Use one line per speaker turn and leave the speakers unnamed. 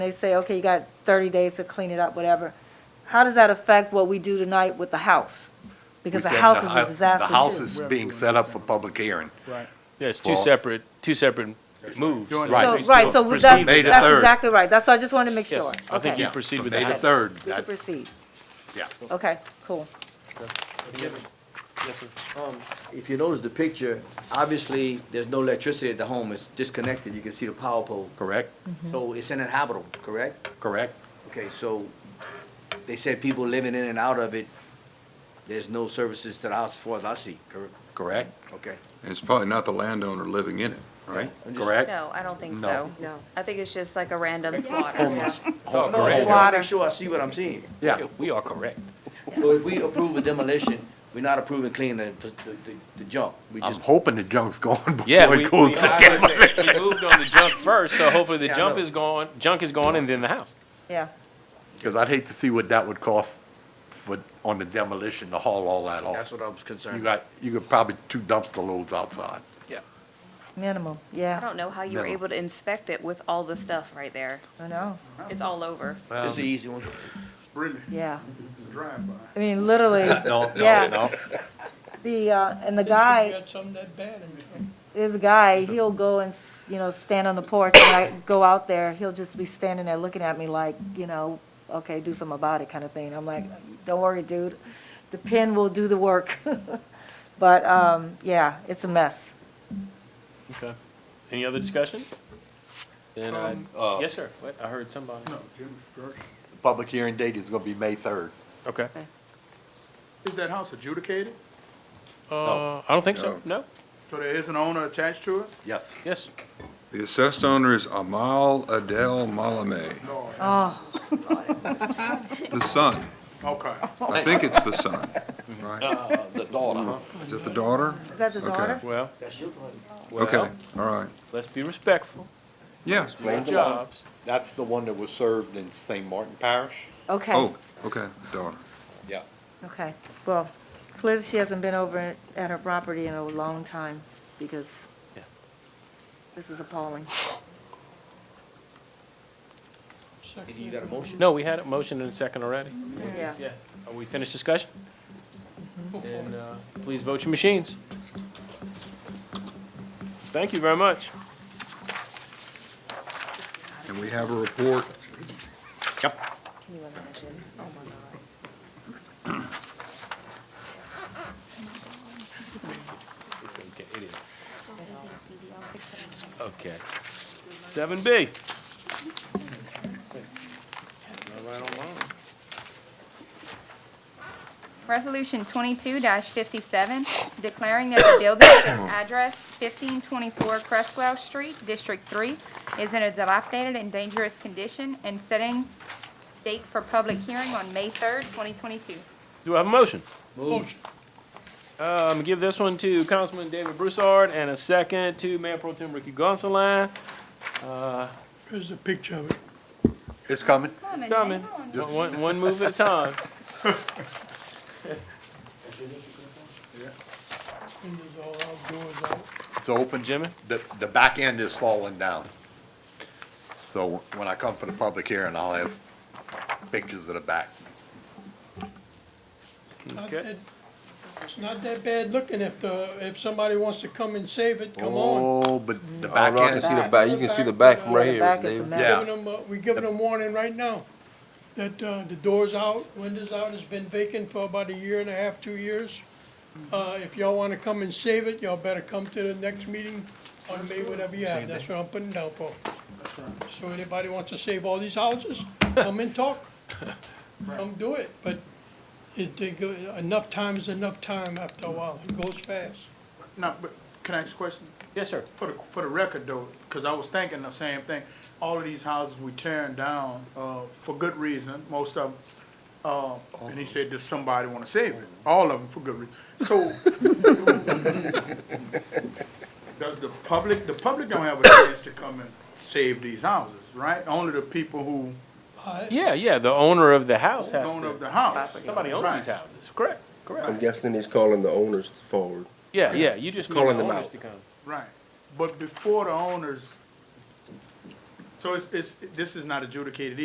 They say, okay, you got 30 days to clean it up, whatever. How does that affect what we do tonight with the house? Because the
We said
house is
hou-
a disaster
The house
too.
is being set up for public hearing.
Right.
Yeah, it's two
Fall.
separate, two separate moves.
Doing
I
So,
think we
right,
still
so we-
proceed
that-
with that.
May the
that's
third.
exactly right. That's why I just wanted to make
Yes,
sure.
I think
Okay.
you proceed
From
with
May the
that.
third,
We can
that-
proceed.
yeah.
Okay, cool.
If you notice the picture, obviously, there's no electricity at the home, it's disconnected, you can see the power pole.
Correct,
So it's uninhabitable, correct?
correct.
Okay, so they said people living in and out of it, there's no services to the house for the see, correct?
Correct,
Okay.
It's probably not the landowner living in it, right?
I'm just-
correct.
No, I don't think
No.
so. No. I think it's just like a random squatter.
Oh,
No, I
correct.
just wanna make sure I see what I'm seeing.
Yeah,
We are correct.
So if we approve a demolition, we're not approving cleaning the, the, the junk, we
I'm
just.
hoping the junk's gone
Yeah,
before
we,
it
we
goes to demolition.
we moved on the junk first, so hopefully the
Yeah, I
junk
know.
is gone, junk is gone and then the house.
Yeah.
Because I'd hate to see what that would cost for, on the demolition to haul all that
That's
off.
what I was
You
concerned.
got, you could probably two dumpster loads outside.
Minimum,
I
yeah,
don't know how you were
No.
able to inspect it with all the stuff right there.
I know,
It's all over.
This is the easy one.
Really,
yeah.
it's a drive-by.
I mean, literally,
No, no,
Yeah.
no.
the, uh, and the guy,
something that bad in there.
this guy, he'll go and, s- you know, stand on the porch, and I go out there, he'll just be standing there looking at me like, you know, okay, do something about it kind of thing. I'm like, don't worry, dude, the pen will do the work. But, um, yeah, it's a mess.
Okay. Any other discussion? Then uh, I,
Um,
yes, sir. What? I heard somebody.
No, Jim first.
Public hearing date is gonna be May third.
Okay.
Is that house adjudicated?
Uh, I don't think so. No?
So there is an owner attached to it?
Yes.
Yes.
The assessed owner is Amal Adel Malame,
No.
Oh,
the son.
Okay.
I think it's the son, right?
The daughter.
Is it the daughter?
is that the
Okay.
daughter?
Well,
Okay,
well,
all right.
let's be respectful.
Yeah.
Do our jobs.
That's the one that was served in St. Martin Parish?
Okay,
Oh, okay, the daughter.
Yeah.
okay. Well, clearly she hasn't been over at her property in a long time, because
Yeah.
this is appalling.
You got a motion?
No, we had a motion and a second already.
Yeah.
Yeah. Are we finished discussion? Then, uh, please vote your machines. Thank you very much.
And we have a report.
Yep.
Can you imagine? Oh my God.
Okay, it is. Okay. Seven B.
Resolution twenty-two fifty-seven, declaring that the building at address fifteen twenty-four Crestwell Street, District Three, is in a dilapidated and dangerous condition, and setting date for public hearing on May third, twenty twenty-two.
Do I have a motion?
Move.
Uh, I'm gonna give this one to Councilman David Broussard and a second to Mayor Pro Tem Ricky Gonsalas.
Here's a picture of it.
It's coming.
Coming, one, one move at a time.
And there's all outdoors out.
It's open,
Jimmy?
The, the back end is falling down. So when I come for the public hearing, I'll have pictures of the back.
Not
Okay.
that- It's not that bad looking if the, if somebody wants to come and save it, come on.
Oh, but the back
Rocky,
end,
see
the
back- you can see the back from right
The back is a mess.
Yeah.
Giving them, uh, we giving them warning right now, that, uh, the door's out, windows out, it's been vacant for about a year and a half, two years. Uh, if y'all wanna come and save it, y'all better come to the next meeting on May, whatever you have, that's what I'm putting down for. So anybody wants to save all these houses, come and talk, come do it, but it, they go- enough time is enough time after a while, it goes fast.
No, but can I ask a question?
Yes, sir.
For the, for the record though, because I was thinking the same thing. All of these houses we tearing down, uh, for good reason, most of them. Uh, and he said, does somebody wanna save it? All of them for good reason. So. Does the public, the public don't have a chance to come and save these houses, right? Only the people who
I-
Yeah, yeah, the owner of the house has
own
to,
up the house.
Property.
somebody owns these
Right.
houses, correct,
I'm
correct.
guessing he's calling the owners forward.
Yeah, yeah, you just need the
Calling them
owners
out.
to come.
Right, but before the owners
So it's, it's, this is not adjudicated